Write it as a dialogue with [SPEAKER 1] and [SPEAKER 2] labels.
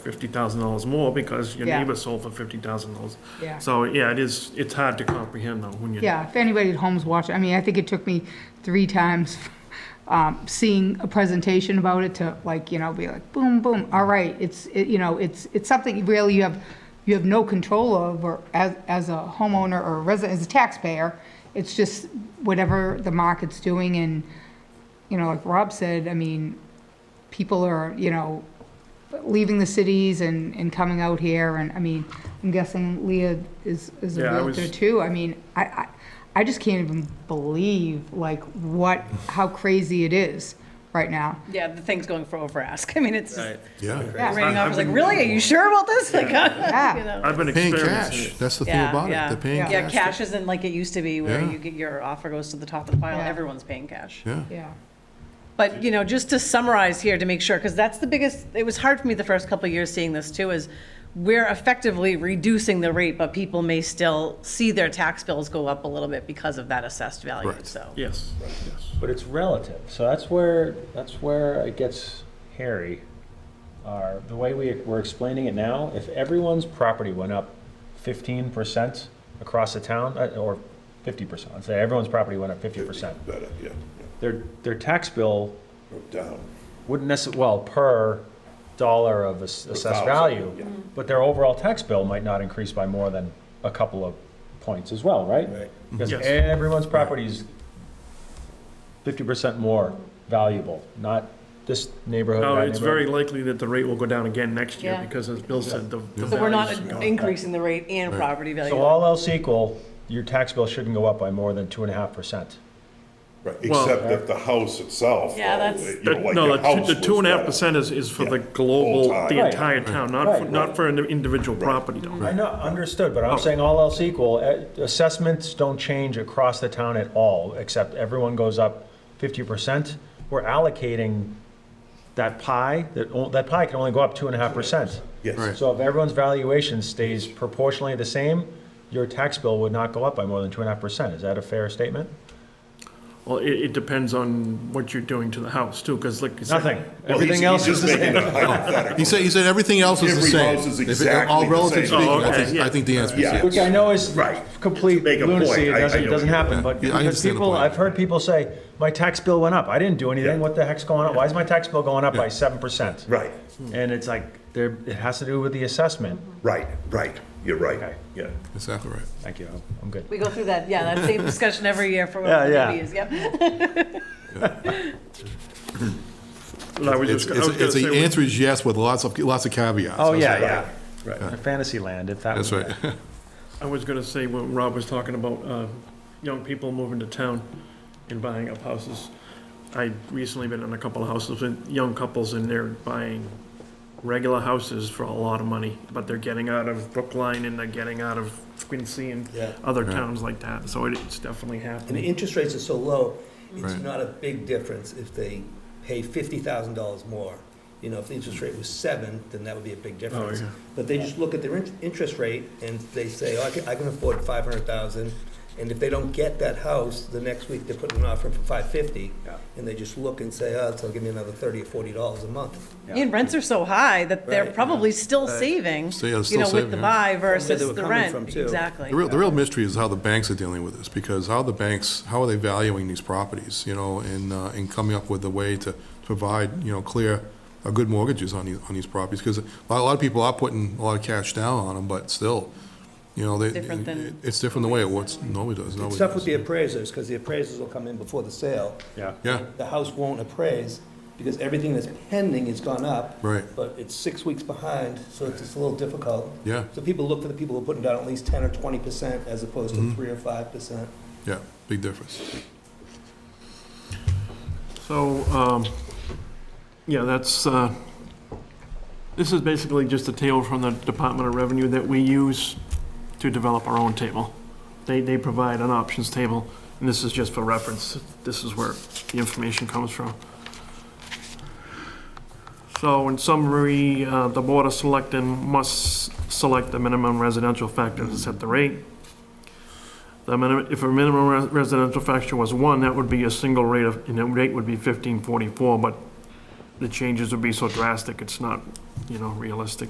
[SPEAKER 1] fifty thousand dollars more because your
[SPEAKER 2] Yeah.
[SPEAKER 1] neighbor sold for fifty thousand dollars.
[SPEAKER 2] Yeah.
[SPEAKER 1] So, yeah, it is, it's hard to comprehend though, when you.
[SPEAKER 2] Yeah, if anybody at home's watching, I mean, I think it took me three times um, seeing a presentation about it to like, you know, be like, boom, boom, all right, it's, it- you know, it's, it's something really you have, you have no control of or as, as a homeowner or a resident, as a taxpayer. It's just whatever the market's doing and, you know, like Rob said, I mean, people are, you know, leaving the cities and, and coming out here, and, I mean, I'm guessing Leah is, is a
[SPEAKER 1] Yeah, I
[SPEAKER 2] realtor
[SPEAKER 1] was-
[SPEAKER 2] too, I mean, I, I, I just can't even believe, like, what, how crazy it is right now.
[SPEAKER 3] Yeah, the thing's going for over ask. I mean, it's just,
[SPEAKER 4] Yeah.
[SPEAKER 2] Yeah.
[SPEAKER 3] the rating
[SPEAKER 1] I've
[SPEAKER 3] officer's like,
[SPEAKER 1] been-
[SPEAKER 3] really? Are you sure about this? Like,
[SPEAKER 2] Ah.
[SPEAKER 3] you know.
[SPEAKER 1] I've been
[SPEAKER 4] Paying
[SPEAKER 1] experiencing
[SPEAKER 4] cash.
[SPEAKER 1] it.
[SPEAKER 4] That's the thing
[SPEAKER 3] Yeah,
[SPEAKER 4] about it.
[SPEAKER 3] yeah.
[SPEAKER 4] They're paying
[SPEAKER 3] Yeah,
[SPEAKER 4] cash.
[SPEAKER 3] cash isn't like it used to be where
[SPEAKER 4] Yeah.
[SPEAKER 3] you get your offer goes to the top of the pile.
[SPEAKER 2] Yeah.
[SPEAKER 3] Everyone's paying cash.
[SPEAKER 4] Yeah.
[SPEAKER 2] Yeah,
[SPEAKER 3] But, you know, just to summarize here to make sure, because that's the biggest, it was hard for me the first couple of years seeing this too, is we're effectively reducing the rate, but people may still see their tax bills go up a little bit because of that assessed value,
[SPEAKER 4] Correct.
[SPEAKER 3] so.
[SPEAKER 1] Yes, yes.
[SPEAKER 5] But it's relative, so that's where, that's where it gets hairy. Are, the way we, we're explaining it now, if everyone's property went up fifteen percent across the town, uh, or fifty percent, let's say everyone's property went up fifty percent,
[SPEAKER 6] Better, yeah,
[SPEAKER 5] their, their tax bill
[SPEAKER 6] yeah, down.
[SPEAKER 5] wouldn't necess, well, per dollar of ass- assessed
[SPEAKER 6] thousand,
[SPEAKER 5] value,
[SPEAKER 6] yeah.
[SPEAKER 5] but their overall tax bill might not increase by more than a couple of points as well, right?
[SPEAKER 6] Right.
[SPEAKER 5] Because
[SPEAKER 1] Yes.
[SPEAKER 5] everyone's property is fifty percent more valuable, not this neighborhood.
[SPEAKER 1] No,
[SPEAKER 5] that
[SPEAKER 1] it's very
[SPEAKER 5] neighborhood.
[SPEAKER 1] likely that the rate will go down again next year
[SPEAKER 3] Yeah.
[SPEAKER 1] because as Bill said, the. the
[SPEAKER 3] So we're not
[SPEAKER 1] values-
[SPEAKER 3] increasing the rate and property value.
[SPEAKER 5] So all else equal, your tax bill shouldn't go up by more than two and a half percent.
[SPEAKER 6] Right,
[SPEAKER 1] Well-
[SPEAKER 6] except that the house itself,
[SPEAKER 3] Yeah,
[SPEAKER 6] though,
[SPEAKER 3] that's-
[SPEAKER 6] you know,
[SPEAKER 1] The-
[SPEAKER 6] like
[SPEAKER 1] No,
[SPEAKER 6] your
[SPEAKER 1] the
[SPEAKER 6] house
[SPEAKER 1] two, the two and a half
[SPEAKER 6] was better.
[SPEAKER 1] percent is, is for the
[SPEAKER 6] Yeah.
[SPEAKER 1] global,
[SPEAKER 6] Whole
[SPEAKER 1] the
[SPEAKER 6] time.
[SPEAKER 1] entire town, not, for-
[SPEAKER 5] Right.
[SPEAKER 1] not for an individual property though.
[SPEAKER 5] I know, understood, but I'm saying all else equal, eh, assessments don't change across the town at all, except everyone goes up fifty percent. We're allocating that pie, that, o- that pie can only go up two and a half percent.
[SPEAKER 6] Yes. Right.
[SPEAKER 5] So if everyone's valuation stays proportionally the same, your tax bill would not go up by more than two and a half percent. Is that a fair statement?
[SPEAKER 1] Well, it, it depends on what you're doing to the house too, because like you said.
[SPEAKER 5] Nothing.
[SPEAKER 6] Well, he's-
[SPEAKER 5] Everything else
[SPEAKER 6] he's
[SPEAKER 5] is the
[SPEAKER 6] just
[SPEAKER 5] same.
[SPEAKER 6] making a hypothetical.
[SPEAKER 4] He said, he said everything else is the
[SPEAKER 6] Every
[SPEAKER 4] same.
[SPEAKER 6] house is
[SPEAKER 4] If it-
[SPEAKER 6] exactly
[SPEAKER 4] All
[SPEAKER 6] the
[SPEAKER 4] relative
[SPEAKER 6] same.
[SPEAKER 4] speaking,
[SPEAKER 1] Oh,
[SPEAKER 4] I
[SPEAKER 1] okay,
[SPEAKER 4] think,
[SPEAKER 1] yeah.
[SPEAKER 4] I think the answer is
[SPEAKER 6] Yeah.
[SPEAKER 5] Which
[SPEAKER 4] yes.
[SPEAKER 5] I know is
[SPEAKER 6] Right.
[SPEAKER 5] complete
[SPEAKER 6] To make a point,
[SPEAKER 5] lunacy, it
[SPEAKER 6] I- I
[SPEAKER 5] doesn't, it
[SPEAKER 6] know
[SPEAKER 5] doesn't
[SPEAKER 6] what you're
[SPEAKER 5] happen,
[SPEAKER 6] doing.
[SPEAKER 5] but
[SPEAKER 4] Yeah, I
[SPEAKER 5] because
[SPEAKER 4] understand the
[SPEAKER 5] people,
[SPEAKER 4] point.
[SPEAKER 5] I've heard people say, my tax bill went up, I didn't do anything, what the heck's going on, why is my tax bill going up by seven percent?
[SPEAKER 6] Right,
[SPEAKER 5] And it's like, there, it has to do with the assessment.
[SPEAKER 6] right, right, you're right,
[SPEAKER 5] Okay.
[SPEAKER 6] yeah.
[SPEAKER 4] Exactly right.
[SPEAKER 5] Thank you, I'm- I'm good.
[SPEAKER 3] We go through that, yeah, that same discussion every year for
[SPEAKER 5] Yeah,
[SPEAKER 3] what
[SPEAKER 5] yeah.
[SPEAKER 3] it is, yep.
[SPEAKER 1] Well, I was
[SPEAKER 4] It's,
[SPEAKER 1] just, I was
[SPEAKER 4] it's,
[SPEAKER 1] gonna
[SPEAKER 4] it's
[SPEAKER 1] say,
[SPEAKER 4] the
[SPEAKER 1] we-
[SPEAKER 4] answer is yes with lots of, lots of caveats.
[SPEAKER 5] Oh,
[SPEAKER 4] That's
[SPEAKER 5] yeah,
[SPEAKER 4] right.
[SPEAKER 5] yeah. Right. Fantasy land, if that was.
[SPEAKER 4] That's right.
[SPEAKER 1] I was gonna say, when Rob was talking about, uh, young people moving to town and buying up houses, I've recently been in a couple of houses with young couples and they're buying regular houses for a lot of money, but they're getting out of Brookline and they're getting out of Quincy and
[SPEAKER 7] Yeah.
[SPEAKER 1] other towns like that, so it- it's definitely
[SPEAKER 7] And the
[SPEAKER 1] happening.
[SPEAKER 7] interest rates are so low, it's
[SPEAKER 4] Right.
[SPEAKER 7] not a big difference if they pay fifty thousand dollars more. You know, if the interest rate was seven, then that would be a big difference.
[SPEAKER 1] yeah.
[SPEAKER 7] But they just look at their in- interest rate and they say, oh, I can, I can afford five hundred thousand. And if they don't get that house, the next week they're putting an offer for five fifty. And they just look and say, oh, so give me another thirty or forty dollars a month.
[SPEAKER 3] And rents are so high that they're
[SPEAKER 7] Right.
[SPEAKER 3] probably still saving,
[SPEAKER 4] So, yeah,
[SPEAKER 3] you
[SPEAKER 4] still
[SPEAKER 3] know, with
[SPEAKER 4] saving,
[SPEAKER 3] the
[SPEAKER 4] yeah.
[SPEAKER 3] buy
[SPEAKER 7] Where they
[SPEAKER 3] versus
[SPEAKER 7] were
[SPEAKER 3] the
[SPEAKER 7] coming from,
[SPEAKER 3] rent.
[SPEAKER 7] too.
[SPEAKER 3] Exactly.
[SPEAKER 4] The real, the real mystery is how the banks are dealing with this, because how the banks, how are they valuing these properties, you know, and, uh, and coming up with a way to provide, you know, clear, uh, good mortgages on these, on these properties, because a lot, a lot of people are putting a lot of cash down on them, but still, you know, they,
[SPEAKER 3] Different than-
[SPEAKER 4] it- it's different the way it was, nobody does,
[SPEAKER 7] It's
[SPEAKER 4] nobody
[SPEAKER 7] tough with the
[SPEAKER 4] does.
[SPEAKER 7] appraisers, because the appraisers will come in before the sale.
[SPEAKER 5] Yeah.
[SPEAKER 4] Yeah,
[SPEAKER 7] the house won't appraise because everything that's pending has gone up.
[SPEAKER 4] Right.
[SPEAKER 7] But it's six weeks behind, so it's just a little difficult.
[SPEAKER 4] Yeah.
[SPEAKER 7] So people look for the people who are putting down at least ten or twenty percent as opposed
[SPEAKER 4] Mm-hmm.
[SPEAKER 7] to three or five percent.
[SPEAKER 4] yeah, big difference.
[SPEAKER 1] So, um, yeah, that's, uh, this is basically just a table from the Department of Revenue that we use to develop our own table. They, they provide an options table, and this is just for reference. This is where the information comes from. So in summary, uh, the Board of Selectmen must select the minimum residential factor to set the rate. The minimum, if a minimum res- residential factor was one, that would be a single rate of, and the rate would be fifteen forty-four, but the changes would be so drastic, it's not, you know, realistic.